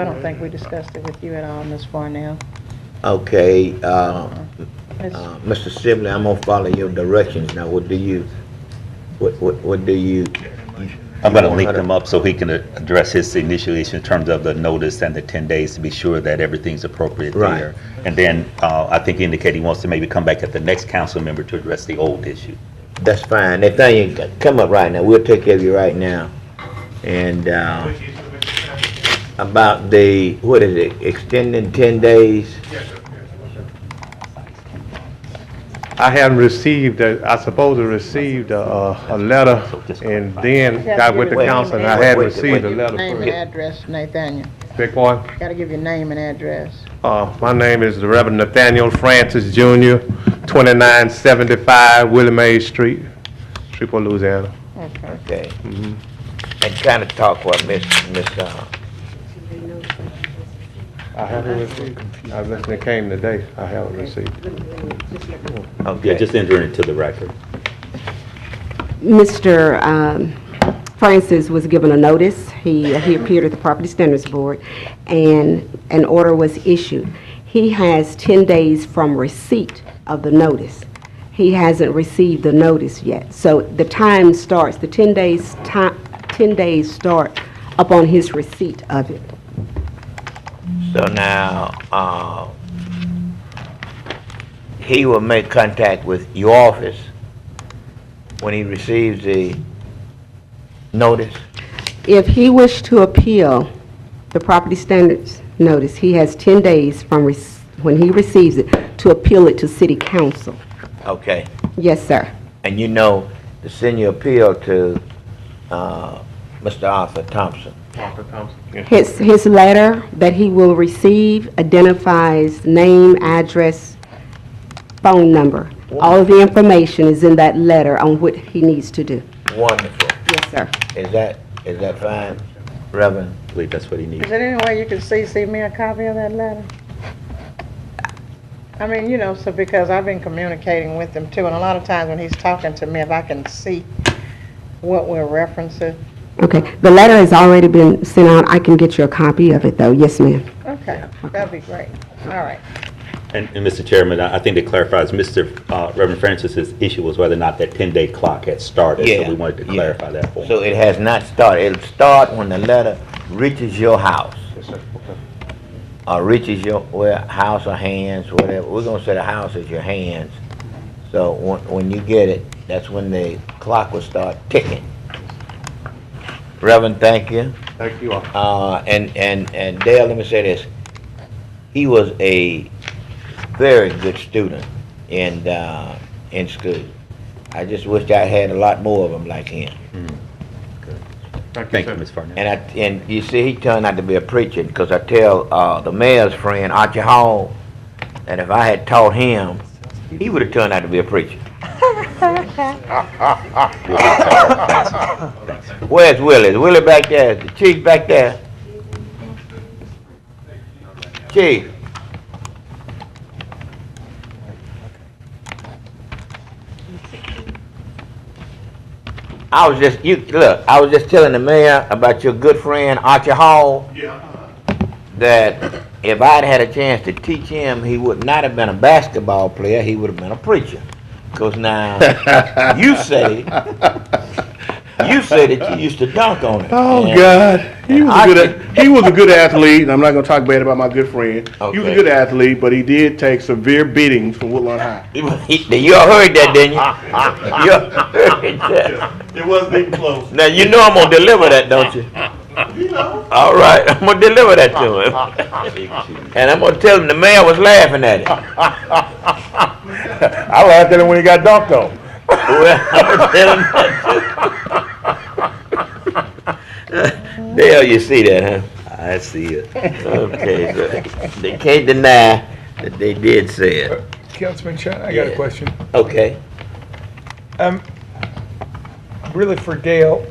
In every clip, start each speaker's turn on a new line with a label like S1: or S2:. S1: I don't think we discussed it with you at all, Ms. Farnell.
S2: Okay, uh,
S1: Ms.
S2: uh, Mr. Sibley, I'm gonna follow your directions now. What do you, what, what, what do you?
S3: I'm gonna link them up so he can a- address his initial issue in terms of the notice and the ten days to be sure that everything's appropriate
S2: Right.
S3: there. And then, uh, I think he indicated he wants to maybe come back at the next council member to address the old issue.
S2: That's fine. That thing, you come up right now. We'll take care of you right now. And, uh,
S4: Which is the Mr. Chairman.
S2: about the, what is it, extending ten days?
S4: Yes, sir. Yes, sir.
S5: I hadn't received, a- I suppose I received a, a a letter and then got with the council and I had received a letter.
S1: Name
S5: for
S1: and
S5: it.
S1: address, Nathaniel.
S5: Big one.
S1: Gotta give your name and address.
S5: Uh, my name is the Reverend Nathaniel Francis Jr., 2975 Willie Mae Street, Shreveport, Louisiana.
S1: Okay.
S2: Okay.
S3: Mm-hmm.
S2: And kinda talk what Miss, Miss, uh,
S5: I haven't received, I listened, it came today, I haven't received.
S3: Yeah,
S2: okay.
S3: just enter into the record.
S6: Mr. um, Francis was given a notice. He, he appeared at the Property Standards Board, and an order was issued. He has 10 days from receipt of the notice. He hasn't received the notice yet. So the time starts, the 10 days, ti- 10 days start upon his receipt of it.
S2: So now, uh, he will make contact with your office when he receives the notice?
S6: If he wished to appeal the property standards notice, he has 10 days from rec- when he receives it to appeal it to City Council.
S2: Okay.
S6: Yes, sir.
S2: And you know, to send your appeal to, uh, Mr. Arthur Thompson.
S6: His, his letter that he will receive identifies name, address, phone number. All of the information is in that letter on what he needs to do.
S2: Wonderful.
S6: Yes, sir.
S2: Is that, is that fine, Reverend?
S3: I believe that's what he needs.
S1: Is there any way you can CC me a copy of that letter? I mean, you know, so because I've been communicating with him too, and a lot of times when he's talking to me, if I can see what we're referencing,
S6: Okay, the letter has already been sent out. I can get you a copy of it, though. Yes, ma'am.
S1: okay, that'd be great. All right.
S3: And, and Mr. Chairman, I I think to clarify, is Mr. uh, Reverend Francis's issue was whether or not that 10-day clock had started.
S2: Yeah,
S3: So we wanted to
S2: yeah.
S3: clarify that for him.
S2: So it has not started. It'll start when the letter reaches your house. Or reaches your, well, house or hands, whatever. We're gonna say the house is your hands. So when, when you get it, that's when the clock will start ticking. Reverend, thank you.
S5: Thank you all.
S2: Uh, and, and, and Dale, let me say this. He was a very good student in, uh, in school. I just wish I had a lot more of them like him.
S3: Thank you, Ms. Farnell.
S2: And I, and you see, he turned out to be a preacher, because I tell, uh, the mayor's friend, Archie Hall, that if I had taught him, he would have turned out to be a preacher. Where's Willie? Is Willie back there? Is the chief back there? Chief? I was just, you, look, I was just telling the mayor about your good friend Archie Hall,
S4: Yeah.
S2: that if I'd had a chance to teach him, he would not have been a basketball player, he would have been a preacher. Because now, you say, you say that you used to dunk on it.
S7: Oh
S2: And-
S7: God, he was
S2: I
S7: a good he was a good athlete, and I'm not gonna talk bad about my good friend. He was
S2: Okay.
S7: a good athlete, but he did take severe beatings from Woodlawn High.
S2: You all heard that, didn't you? You all heard that.
S4: It wasn't even close.
S2: Now, you know I'm gonna deliver that, don't you?
S4: You know,
S2: All right, I'm gonna deliver that to him. And I'm gonna tell him the mayor was laughing at it.
S7: I laughed at him when he got dunked on.
S2: Well, I'm gonna tell him that too. Dale, you see that, huh?
S3: I see it.
S2: Okay, so they can't deny that they did say it.
S8: Councilman Chen, I got
S2: Yeah.
S8: a question.
S2: Okay.
S8: Um, really for Dale,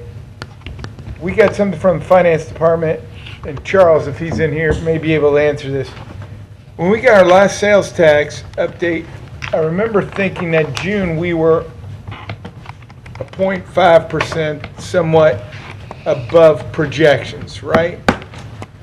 S8: we got something from the finance department, and Charles, if he's in here, may be able to answer this. When we got our last sales tax update, I remember thinking that June, we were a point five percent somewhat above projections, right?